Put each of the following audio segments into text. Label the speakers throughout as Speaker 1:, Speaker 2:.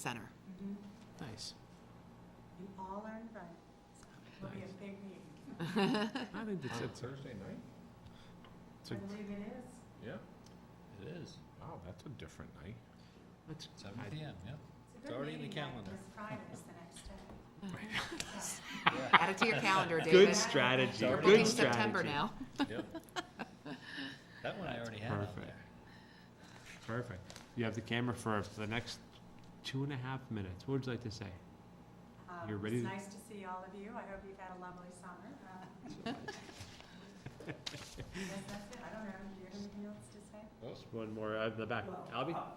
Speaker 1: Center.
Speaker 2: Nice.
Speaker 3: You all are invited. It's gonna be a big meeting.
Speaker 2: I think it's,
Speaker 4: On
Speaker 2: it's,
Speaker 4: Thursday night?
Speaker 2: it's
Speaker 3: I
Speaker 2: a- oh,
Speaker 3: believe it is.
Speaker 4: Yeah.
Speaker 5: It is,
Speaker 4: Wow, that's a different night.
Speaker 2: it's,
Speaker 5: seven
Speaker 2: I-
Speaker 5: PM, yeah.
Speaker 3: It's a good
Speaker 5: already in the
Speaker 3: meeting night,
Speaker 5: calendar.
Speaker 3: because Friday's the next day. Yeah.
Speaker 1: Add it to your calendar, David.
Speaker 2: good strategy,
Speaker 1: We're
Speaker 5: Sorry.
Speaker 1: booking
Speaker 2: good
Speaker 1: September
Speaker 2: strategy.
Speaker 1: now.
Speaker 5: That one I already had out
Speaker 2: perfect.
Speaker 5: there.
Speaker 2: Perfect. You have the camera for the next two and a half minutes. What would you like to say?
Speaker 3: Um,
Speaker 2: You're ready
Speaker 3: It's
Speaker 2: to-
Speaker 3: nice to see all of you. I hope you've had a lovely summer. Uh, I guess that's it. I don't know. Do you have anything else to say?
Speaker 2: One more out of the back.
Speaker 6: Well,
Speaker 2: Albie?
Speaker 6: uh,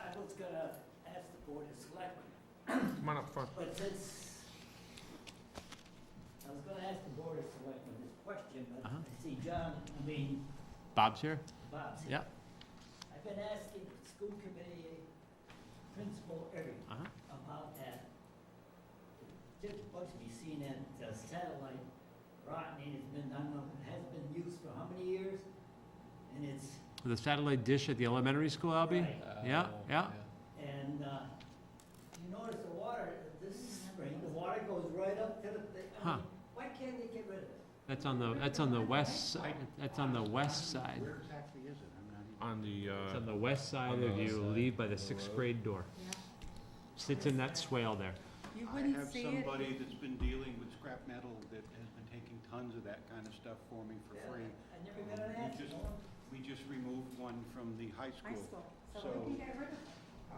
Speaker 6: I was gonna ask the board of selectmen,
Speaker 4: Come on up front.
Speaker 6: but since, I was gonna ask the board of selectmen this question, but
Speaker 2: Uh-huh.
Speaker 6: I see John, I mean,
Speaker 2: Bob's here?
Speaker 6: Bob's here.
Speaker 2: Yeah.
Speaker 6: I've been asking school committee principal Eric
Speaker 2: Uh-huh.
Speaker 6: about that. Just supposed to be seen at the uh, satellite rotten, and it's been, I don't know, it hasn't been used for how many years? And it's,
Speaker 2: The satellite dish at the elementary school, Albie?
Speaker 6: Right.
Speaker 2: Yeah,
Speaker 5: Oh,
Speaker 2: yeah.
Speaker 6: And uh, you notice the water, this spring, the water goes right up to the, thing. I
Speaker 2: Huh.
Speaker 6: mean, why can't they get rid of it?
Speaker 2: That's on the, that's on the west, si- that's on the west side.
Speaker 7: exactly is it? I'm not even.
Speaker 4: On the,
Speaker 2: It's
Speaker 4: uh,
Speaker 2: on the west side
Speaker 5: On the
Speaker 2: of
Speaker 5: west
Speaker 2: you,
Speaker 5: side
Speaker 2: leave by the
Speaker 5: of the
Speaker 2: sixth
Speaker 5: road.
Speaker 2: grade door. Sits in that swale there.
Speaker 3: You
Speaker 7: I
Speaker 3: wouldn't
Speaker 7: have
Speaker 3: see it.
Speaker 7: somebody that's been dealing with scrap metal that has been taking tons of that kind of stuff for me for
Speaker 6: Yeah,
Speaker 7: free.
Speaker 6: I never got an
Speaker 7: You
Speaker 6: answer.
Speaker 7: just- We just removed one from the high
Speaker 3: High
Speaker 7: school.
Speaker 3: school. So
Speaker 7: So-
Speaker 3: we can get rid of it.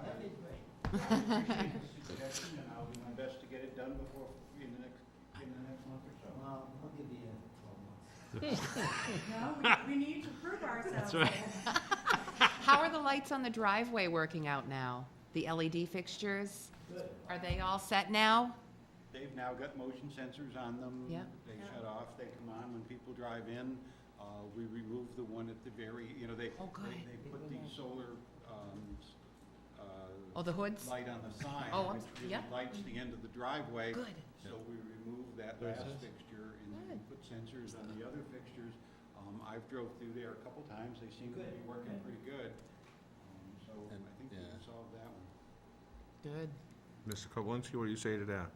Speaker 6: That'd be great.
Speaker 7: I appreciate the suggestion, and I'll do my best to get it done before, in the next, in the next month or so.
Speaker 6: Well, I'll give you twelve months.
Speaker 3: No, we, we need to prove ourselves.
Speaker 2: right.
Speaker 3: here.
Speaker 1: How are the lights on the driveway working out now? The LED fixtures,
Speaker 6: Good.
Speaker 1: are they all set now?
Speaker 7: They've now got motion sensors on them.
Speaker 1: Yeah.
Speaker 7: They
Speaker 3: Yeah.
Speaker 7: shut off, they come on when people drive in. Uh, we remove the one at the very, you know, they,
Speaker 1: Oh,
Speaker 7: they,
Speaker 1: good.
Speaker 7: they put the solar, um, s-
Speaker 1: Oh,
Speaker 7: uh,
Speaker 1: the hoods?
Speaker 7: light on the sign,
Speaker 1: Oh, I'm
Speaker 7: which
Speaker 1: s-
Speaker 7: really
Speaker 1: yeah.
Speaker 7: lights the end of the driveway.
Speaker 1: Good.
Speaker 7: So we remove that
Speaker 5: There's
Speaker 7: last
Speaker 5: this.
Speaker 7: fixture and then
Speaker 1: Good.
Speaker 7: put sensors on the other fixtures. Um, I've drove through there a couple times, they seem to be
Speaker 6: Good.
Speaker 7: working pretty good. Um, so
Speaker 5: And-
Speaker 7: I think we
Speaker 5: yeah.
Speaker 7: can solve that one.
Speaker 1: Good,
Speaker 4: Mr. Koblinski, what do you say to that?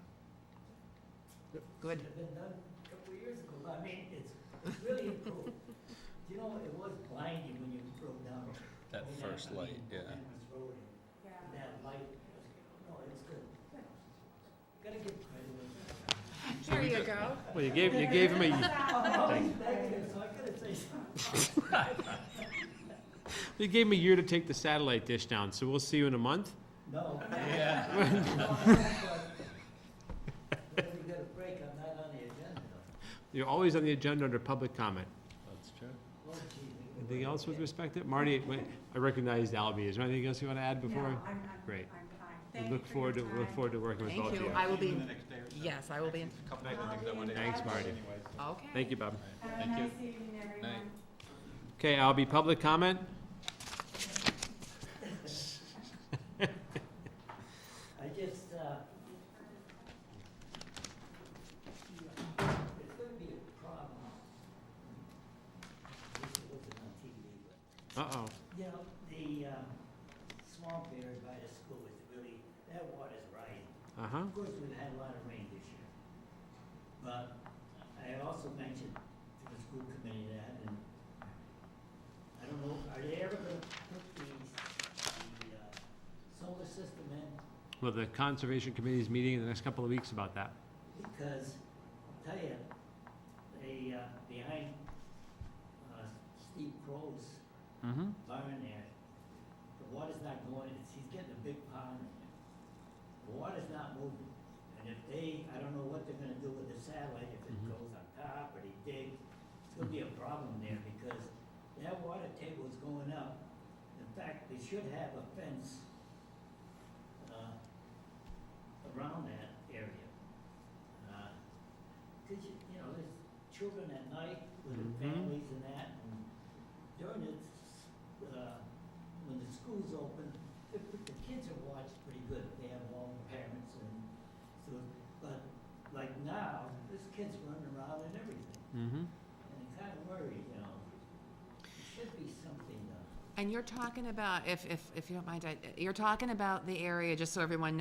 Speaker 1: good.
Speaker 6: Should have been done a couple of years ago. I mean, it's it's really improved. You know, it was blinding when you drove down.
Speaker 5: That
Speaker 6: over
Speaker 5: first
Speaker 6: I
Speaker 5: light,
Speaker 6: mean,
Speaker 5: yeah.
Speaker 6: Amos Road.
Speaker 3: Yeah.
Speaker 6: That light, no, it's good. Gotta give credit.
Speaker 1: There you go.
Speaker 2: Well, you gave, you gave him a,
Speaker 6: Oh, thank you, so I couldn't say something.
Speaker 2: you gave him a year to take the satellite dish down, so we'll see you in a month.
Speaker 6: No.
Speaker 5: Yeah.
Speaker 6: Whenever we get a break, I'm not on the agenda.
Speaker 2: You're always on the agenda under public comment.
Speaker 5: That's true.
Speaker 6: Oh, gee, we-
Speaker 2: Anything else with respect to, Marty, wait, I recognized Albie, is there anything else you want to add
Speaker 3: No,
Speaker 2: before?
Speaker 3: I'm, I'm,
Speaker 2: Great.
Speaker 3: I'm fine.
Speaker 2: We
Speaker 3: Thank you
Speaker 2: Look
Speaker 3: for
Speaker 2: forward to,
Speaker 3: your
Speaker 2: look
Speaker 3: time.
Speaker 2: forward to working with
Speaker 1: Thank
Speaker 2: both of
Speaker 1: you.
Speaker 2: you.
Speaker 1: I will be
Speaker 7: Even
Speaker 1: in-
Speaker 7: the next day or so.
Speaker 1: Yes, I will be in,
Speaker 7: A Couple
Speaker 3: I'll
Speaker 7: nights, I think
Speaker 3: be
Speaker 7: that
Speaker 3: in
Speaker 7: one is.
Speaker 2: Thanks,
Speaker 3: touch.
Speaker 2: Marty.
Speaker 7: Anyways.
Speaker 1: okay.
Speaker 2: Thank you, Bob.
Speaker 3: Have a
Speaker 5: Thank you.
Speaker 3: nice evening, everyone.
Speaker 2: Okay, Albie, public comment?
Speaker 6: I just, uh, it's gonna be a problem. This wasn't on TV, but
Speaker 2: Uh-oh.
Speaker 6: You know, the um, swamp area by the school is really, that water's rising.
Speaker 2: Uh-huh.
Speaker 6: Of course, we've had a lot of rain this year. But I also mentioned to the school committee that, and I don't know, are they ever gonna put the, the uh, solar system in?
Speaker 2: Well, the Conservation Committee's meeting in the next couple of weeks about that.
Speaker 6: Because, I'll tell you, they, uh, behind uh, Steve Crow's
Speaker 2: Mm-hmm.
Speaker 6: barn there, the water's not going, it's, he's getting a big pond in there. The water's not moving, and if they, I don't know what they're gonna do with the satellite, if it
Speaker 2: Mhm.
Speaker 6: goes on top or they dig, it's gonna be a problem there, because that water table is going up. In fact, they should have a fence, uh, around that area. Uh, Cause you, you know, there's children at night with
Speaker 2: Mhm.
Speaker 6: their families and that, and during the, s- uh, when the school's open, the, the kids are watched pretty good, they have all the parents and, so, but like now, this kid's running around and everything,
Speaker 2: Mm-hmm.
Speaker 6: and it kinda worries, you know. There should be something, uh,
Speaker 1: And you're talking about, if, if, if you don't mind, I- you're talking about the area, just so everyone knows